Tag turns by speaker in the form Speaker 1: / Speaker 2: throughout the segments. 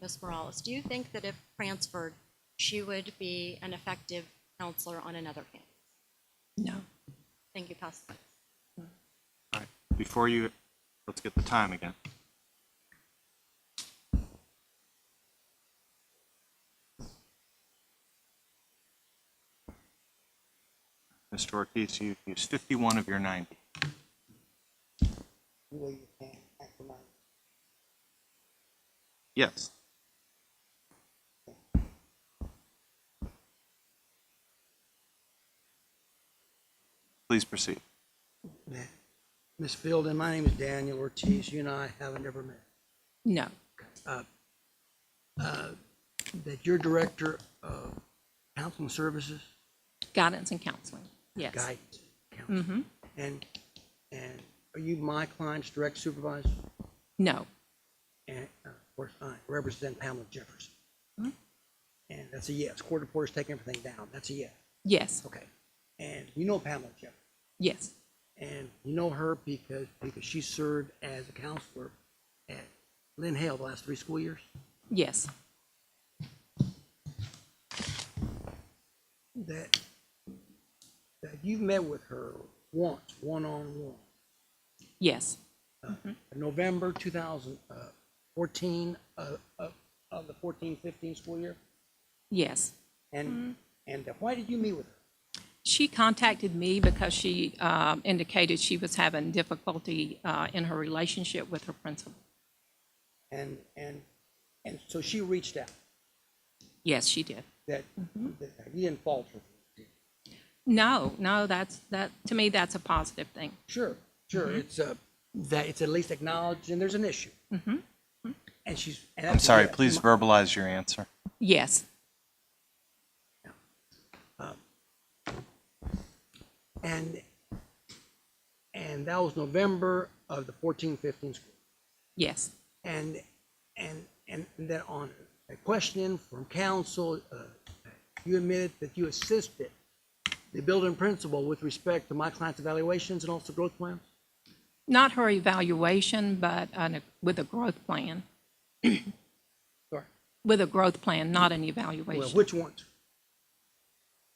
Speaker 1: Ms. Morales, do you think that if transferred, she would be an effective counselor on another campus?
Speaker 2: No.
Speaker 1: Thank you, pass the mic.
Speaker 3: All right, before you, let's get the time again. Mr. Ortiz, you've used 51 of your 90.
Speaker 4: You know you can't act alone.
Speaker 3: Yes. Please proceed.
Speaker 4: Ms. Fielden, my name is Daniel Ortiz. You and I haven't ever met.
Speaker 2: No.
Speaker 4: That you're director of counseling services,
Speaker 2: Guidance and counseling. Yes.
Speaker 4: guidance, counseling. And, and are you my client's direct supervisor?
Speaker 2: No.
Speaker 4: And uh, of course, I represent Pamela Jefferson. And that's a yes. Court reporter's taking everything down. That's a yes.
Speaker 2: Yes.
Speaker 4: Okay. And you know Pamela Jefferson.
Speaker 2: Yes.
Speaker 4: And you know her because, because she served as a counselor at Lynn Hale the last three school years?
Speaker 2: Yes.
Speaker 4: that, that you've met with her once, one-on-one, uh,
Speaker 2: Yes.
Speaker 4: Mm-hmm. November two thousand uh, fourteen, uh, of, of the fourteen, fifteen school year?
Speaker 2: Yes.
Speaker 4: And, and uh, why did you meet with her?
Speaker 2: She contacted me because she um, indicated she was having difficulty uh, in her relationship with her principal.
Speaker 4: And, and, and so she reached out,
Speaker 2: Yes, she did.
Speaker 4: that, that you didn't falter.
Speaker 2: No, no, that's that to me that's a positive thing.
Speaker 4: Sure, sure, it's, uh, that it's at least acknowledged and there's an issue. Mm-hmm. And she's. and
Speaker 3: I'm
Speaker 4: that's a
Speaker 3: sorry,
Speaker 4: yes.
Speaker 3: please
Speaker 4: My-
Speaker 3: verbalize your answer.
Speaker 2: Yes.
Speaker 4: And, and that was November of the fourteen, fifteen school.
Speaker 2: Yes.
Speaker 4: And, and, and then on a question from council, uh, you admitted that you assisted the building principal with respect to my client's evaluations and also growth plans?
Speaker 2: Not her evaluation, but on a, with a growth plan.
Speaker 4: Sorry.
Speaker 2: With a growth plan, not an
Speaker 4: Well,
Speaker 2: evaluation.
Speaker 4: which ones?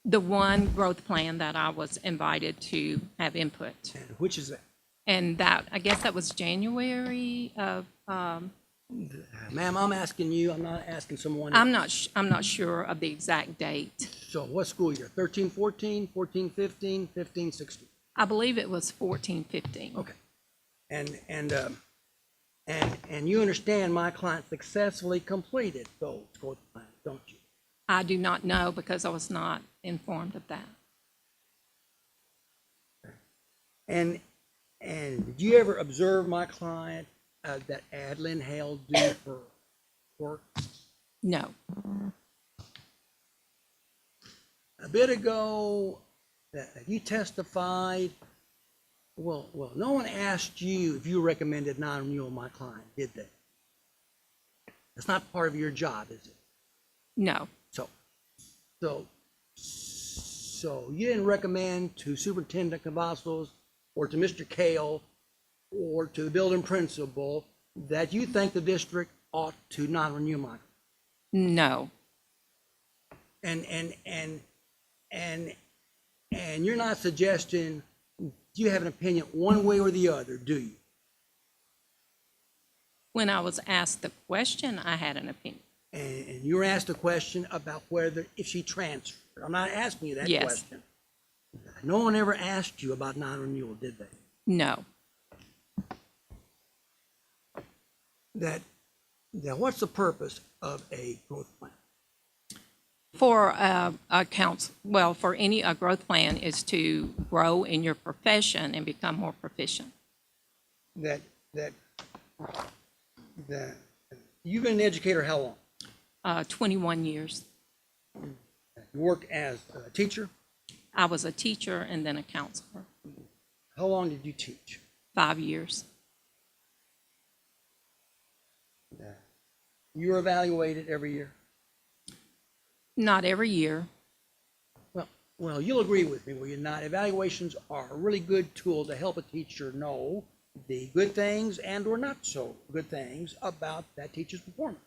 Speaker 2: the one growth plan that I was invited to have input.
Speaker 4: And which is that?
Speaker 2: And that, I guess that was January of, um,
Speaker 4: Uh, Ma'am, I'm asking you, I'm not asking someone.
Speaker 2: I'm not, sh- I'm not sure of the exact date.
Speaker 4: So what school year? Thirteen, fourteen, fourteen, fifteen, fifteen, sixteen?
Speaker 2: I believe it was fourteen, fifteen.
Speaker 4: Okay. And, and, um, and, and you understand my client successfully completed those growth plans, don't you?
Speaker 2: I do not know because I was not informed of that.
Speaker 4: And, and did you ever observe my client uh, that Adlin Hale do her work?
Speaker 2: No,
Speaker 4: A bit ago, that that you testified, well, well, no one asked you if you recommended non-renewal of my client, did they? That's not part of your job, is it?
Speaker 2: no,
Speaker 4: So, so, so you didn't recommend to Superintendent Cavazos or to Mr. Kale or to the building principal that you think the district ought to not renew my,
Speaker 2: no,
Speaker 4: and, and, and, and, and you're not suggesting you have an opinion one way or the other, do you?
Speaker 2: When I was asked the question, I had an opinion.
Speaker 4: And, and you were asked a question about whether, if she transferred. I'm not asking you that
Speaker 2: Yes.
Speaker 4: question. No one ever asked you about non-renewal, did they?
Speaker 2: No,
Speaker 4: that, that what's the purpose of a growth plan?
Speaker 2: for uh, a council, well, for any, a growth plan is to grow in your profession and become more proficient.
Speaker 4: That, that, that, you've been an educator how long?
Speaker 2: Uh, Twenty-one years.
Speaker 4: You worked as a teacher?
Speaker 2: I was a teacher and then a counselor,
Speaker 4: How long did you teach?
Speaker 2: five years.
Speaker 4: You were evaluated every year?
Speaker 2: Not every year.
Speaker 4: Well, well, you'll agree with me, will you not? Evaluations are a really good tool to help a teacher know the good things and or not so good things about that teacher's performance.